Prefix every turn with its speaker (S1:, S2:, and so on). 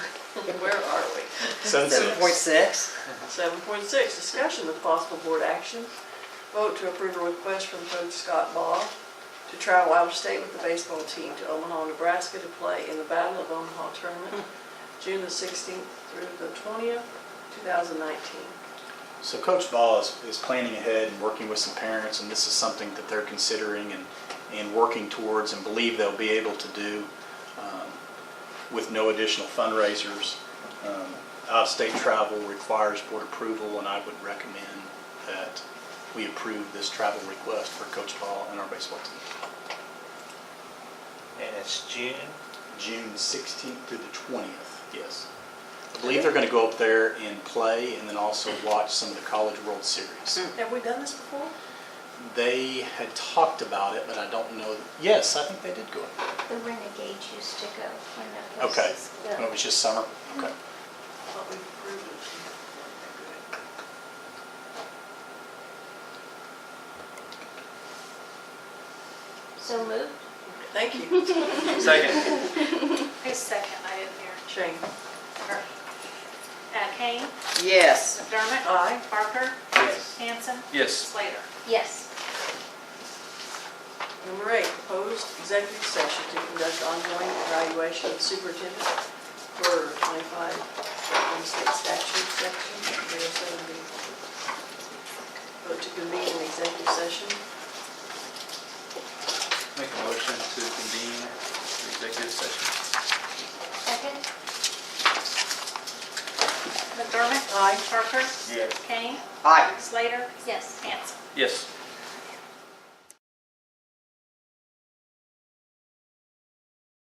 S1: Where are we?
S2: Seven
S3: Seven point
S2: six.
S3: six?
S1: Seven point six, discussion with possible board action. Vote to approve a request from Coach Scott Ball to travel out of state with the baseball team to Omaha, Nebraska to play in the Battle of Omaha Tournament, June the sixteenth through the twentieth, two thousand nineteen.
S2: So Coach Ball is, is planning ahead and working with some parents, and this is something that they're considering and, and working towards and believe they'll be able to do um, with no additional fundraisers. Um, Out-of-state travel requires board approval, and I would recommend that we approve this travel request for Coach Ball and our baseball team.
S4: And it's June.
S2: June 16th through the 20th, yes. I believe they're going to go up there and play, and then also watch some of the College World Series.
S1: Have we done this before?
S2: They had talked about it, but I don't know. Yes, I think they did go. up
S5: The Renegades used to go when
S2: there.
S5: the
S2: Okay.
S5: horses.
S2: When It was just summer. Okay.
S1: I thought we approved it.
S5: So moved.
S1: Thank you.
S4: Second.
S6: Who's second? I didn't hear.
S1: Shane?
S6: Uh, Kane,
S3: Yes.
S6: McDermott.
S1: Aye.
S6: Parker.
S4: Yes.
S6: Hanson.
S4: Yes.
S6: Slater.
S5: Yes.
S1: Number eight, proposed executive session to conduct ongoing evaluation of superintendent for 25 Oklahoma State Statute, Section 307B. Vote to convene an executive session.
S4: Make a motion to convene the executive session.
S5: Second.
S6: McDermott.
S1: Aye.
S6: Parker.
S4: Yes.
S6: Kane.
S3: Aye.
S6: Slater.
S5: Yes.
S6: Hanson.
S4: Yes.